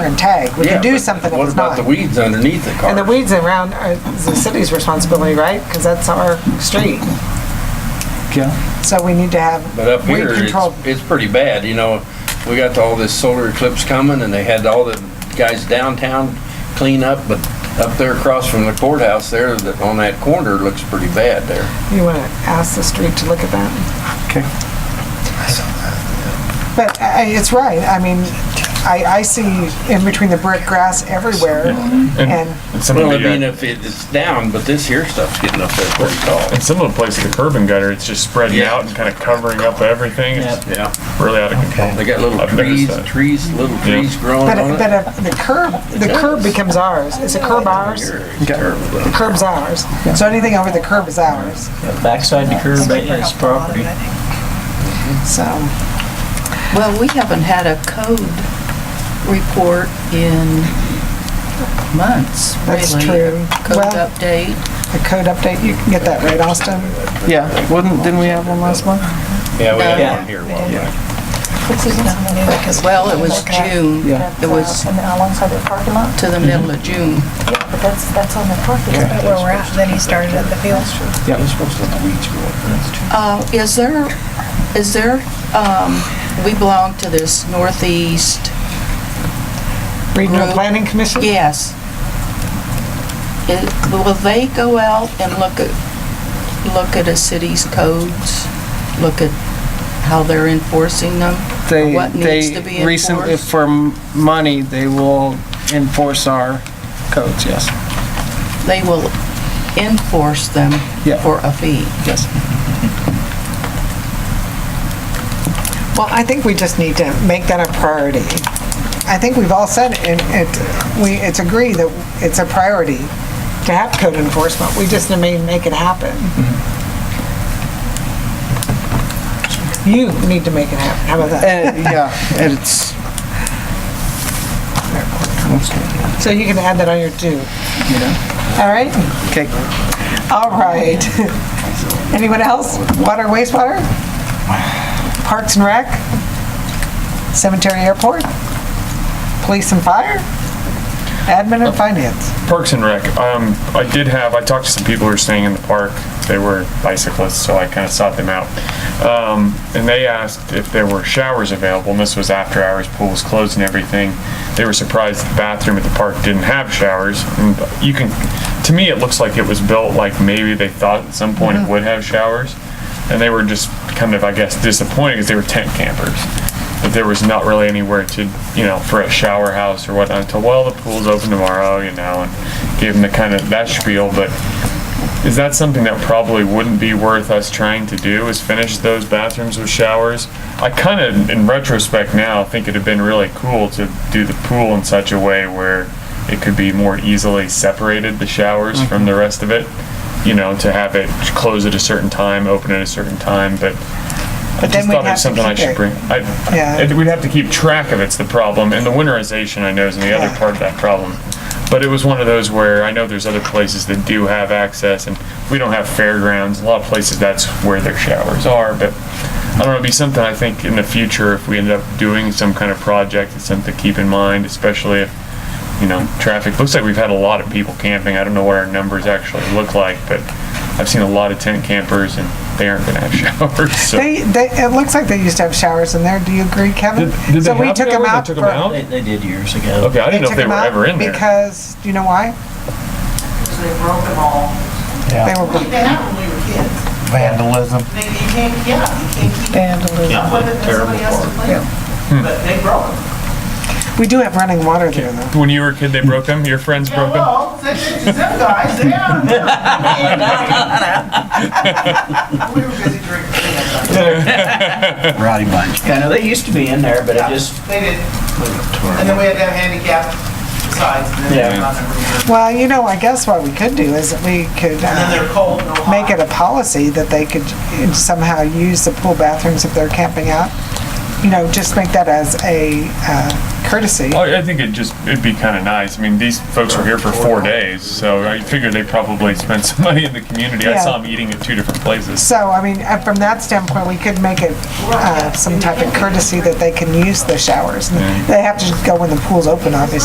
and tag. We can do something if What it's about not. the weeds underneath the And the car? weeds around are the city's responsibility, right? Because that's our street. Yeah, So we need to have But up weed here, control. it's, it's pretty bad, you know, we got all this solar eclipse coming and they had all the guys downtown clean up, but up there across from the courthouse there, that, on that corner, looks pretty bad there. You want to ask the street to look at that? okay. But I, it's right. I mean, I, I see in between the brick grass everywhere and And some, Well, I of the, mean, uh, if it- it's down, but this here stuff's getting up there pretty tall. in some of the places, the curb and gutter, it's just spreading Yeah. out and kind of covering up everything. It's Yeah, really out of control. they got little I've trees, noticed that. trees, little trees growing but, on if- it. but if the curb, the curb becomes ours. Is the curb ours? Here, it's terrible. The curb's ours. So anything over the curb is ours. Backside the curb is property. Mm-hmm. So Well, we haven't had a code report in months, really. That's true. Code Well- update. the code update, you can get that right, Austin? Yeah, wouldn't, didn't we have one last month? Oh, Yeah, we Yeah. had one here a while back. Uh, Well, it was June. Yeah. It was And alongside the parking lot, to the Mm-hmm. middle of June. but that's, that's on the parking lot. where we're at, then he started at the field. They're supposed to let the weeds grow up. Uh, is there, is there, um, we belong to this northeast, Regional Group. Planning Commission? yes. It- Will they go out and look at, look at a city's codes? Look at how they're enforcing them? They, What needs to be they recently, enforced? for m- money, they will enforce our codes, yes. They will enforce them Yeah. for a fee. Yes. Well, I think we just need to make that a priority. I think we've all said, and it, we, it's agreed that it's a priority to have code enforcement. We just may make it happen. You need to make it happen. How about that? And, yeah, and it's, So you can add that on your do. All right? okay, All right. Anyone else? Water, wastewater? Parks and Rec? Cemetery, airport? Police and fire? Admin Oh. and finance? Parks and Rec. Um, I did have, I talked to some people who were staying in the park. They were bicyclists, so I kind of sought them out. Um, and they asked if there were showers available, and this was after hours, pool was closed and everything. They were surprised the bathroom at the park didn't have showers. And you can, to me, it looks like it was built like maybe they thought at some point it would have showers. And they were just kind of, I guess, disappointed because they were tent campers that there was not really anywhere to, you know, for a shower house or whatnot. Until well, the pool's open tomorrow, you know, and give them the kind of that spiel. But is that something that probably wouldn't be worth us trying to do? Is finish those bathrooms with showers? I kind of, in retrospect now, think it'd have been really cool to do the pool in such a way where it could be more easily separated the showers Mm-hmm. from the rest of it. You know, to have it close at a certain time, open at a certain time, but. I then just we'd thought it have to was something I keep should it. bring. I, Yeah. and we'd have to keep track of it's the problem, and the winterization I know is the Yeah. other part of that problem. But it was one of those where I know there's other places that do have access, and we don't have fairgrounds. A lot of places that's where their showers are, but I don't know. It'd be something I think in the future if we end up doing some kind of project, it's something to keep in mind, especially if you know traffic. Looks like we've had a lot of people camping. I don't know what our numbers actually look like, but I've seen a lot of tent campers, and they aren't going to have showers. So. They, they, it looks like they used to have showers in there. Do you agree, Kevin? Did- did So they we have took them them or they out took them for- out? They, they did years ago. Okay, I didn't know if took they them were out ever in there. Because, do you know why? They broke them all. They were, They happened when we were kids. Vandalism. They, you can't, yeah, you can't keep Yeah, up with it, that's terrible somebody else to part. play with. But they broke them. we do have running water there though. When you were a kid, they broke them. Your friends Yeah, broke them. well, they, they, them guys, they had them. We were busy drinking. Rowdy bunch. Yeah, no, they used to be in there, but it just, They did. And then we had to have handicap sides, and Yeah. then another room. Well, you know, I guess what we could do is we could. uh, And then they're cold, no hot. make it a policy that they could somehow use the pool bathrooms if they're camping out No, just make that as a uh, courtesy. Oh, I, I think it just, it'd be kinda nice. I mean, these folks were here for four days, so I figured they probably spent some money in the community. I Yeah. saw them eating at two different places. So, I mean, uh, from that standpoint, we could make it uh, some type of courtesy that they can use the showers. They have to go when the pool's open, obviously.